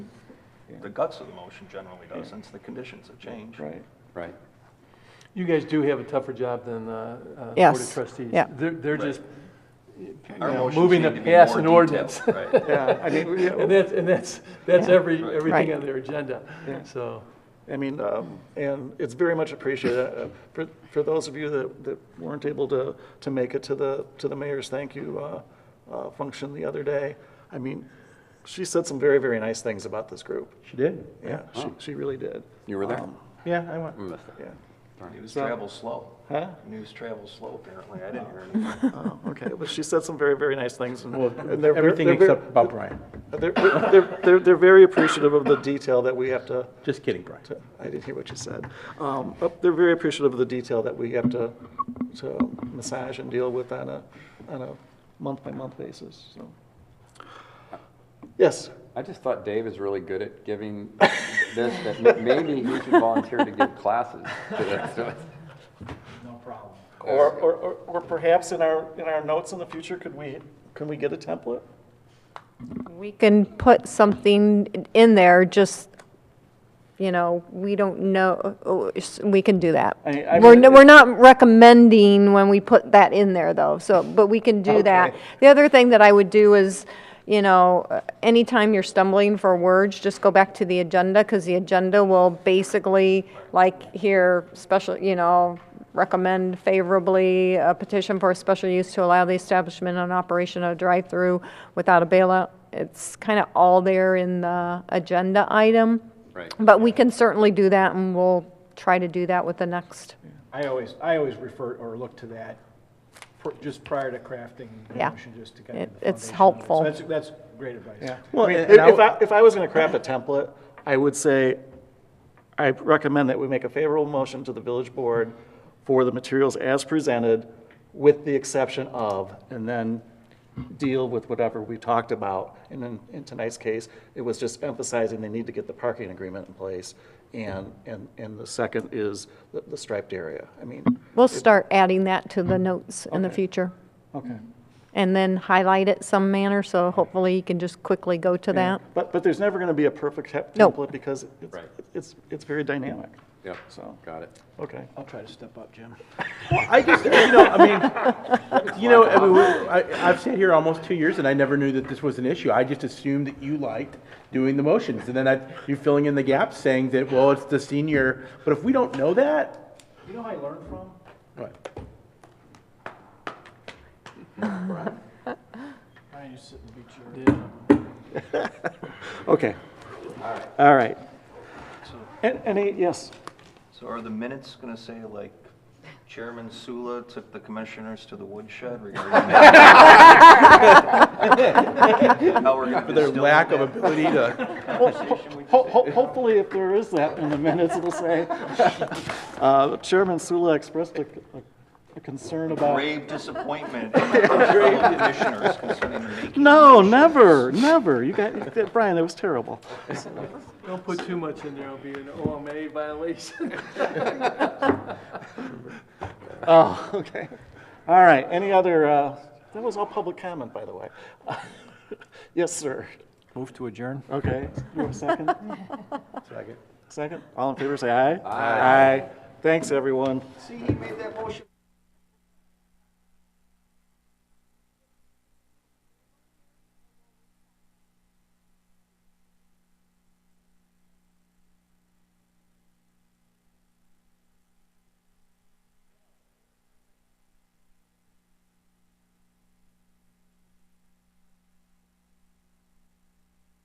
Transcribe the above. the guts of the motion generally does, since the conditions have changed. Right, right. You guys do have a tougher job than uh, uh, Board Yes, of Trustees. yeah. They're, they're Right. just Our you know, motions moving need to to be pass more an detailed, ordinance. right. Yeah, I mean, we- And that's, and that's, that's Yeah. every, Right. everything Right. on their agenda, so. I mean, Um, And it's very much appreciated. Uh, For, for those of you that, that weren't able to, to make it to the, to the mayor's thank you uh, uh, function the other day, I mean, she said some very, very nice things about this group. she did. Yeah, she, she really did. You were there? Um, Yeah, I went, missed yeah. News travels slow. Huh? News travels slow, apparently. I didn't hear anything. Oh, okay, well, she said some very, very nice things. and- and they're ver- Everything they're ver- except about Brian. They're, they're, they're, they're very appreciative of the detail that we have to, Just kidding, Brian. to- I didn't hear what you said. Um, but They're very appreciative of the detail that we have to, to massage and deal with on a, on a month-by-month basis, so. Yes, I just thought Dave is really good at giving this, that ma- maybe he should volunteer to give classes to this. No or, problem. or, or- or perhaps in our, in our notes in the future, could we, can we get a template? We can put something in there, just, you know, we don't know, oh, s- we can do that. I- I We're, mean, n- we're not recommending when we put that in there, though, so, but we can do that. The other thing that I would do is, you know, uh, anytime you're stumbling for words, just go back to the agenda, because the agenda will basically, like here, special, you know, recommend favorably a petition for a special use to allow the establishment and operation of a drive-through without a bailout. It's kind of all there in the agenda item. Right. But we can certainly do that, and we'll try to do that with the next, I always, I always refer or look to that pr- just prior to crafting the Yeah. motion, just to kind of. It- the it's foundation of it. helpful. So that's, that's great advice. Well, if I, if I was going to craft a template, I would say, I recommend that we make a favorable motion to the village board for the materials as presented, with the exception of, and then deal with whatever we talked about. And in, in tonight's case, it was just emphasizing they need to get the parking agreement in place. And, and, and the second is the the striped area. I mean, we'll start adding that to Mm-hmm. the notes in the future. okay. And then highlight it some manner, so hopefully you can just quickly go to that. But, but there's never going to be a perfect te- No. template because it's, Right. it's, it's very dynamic. Yep, So, got it. okay. I'll try to step up, Jim. I just, you know, I mean, you know, I mean, we- I, I've sat here almost two years and I never knew that this was an issue. I just assumed that you liked doing the motions. And then I, you're filling in the gaps saying that, well, it's the senior, but if we don't know that, You know how I learned from? what? I used to sit and beat your. Okay. All right. And, any, yes, So are the minutes going to say like Chairman Sula took the commissioners to the woodshed regarding? How we're going to For their distill lack of that? ability to, Ho- ho- hopefully if there is that in the minutes, it'll say, uh, Chairman Sula expressed a a concern about. Grave disappointment in my fellow commissioners concerning the making. No, never, never. You got, that- Brian, that was terrible. Don't put too much in there, it'll be an OMA violation. Oh, okay. All right, any other, uh, that was all public comment, by the way. Yes, sir. Move to adjourn. Okay, you have a second? Second. Second? All in favor, say aye. Aye. Thanks, everyone. See, he made that motion.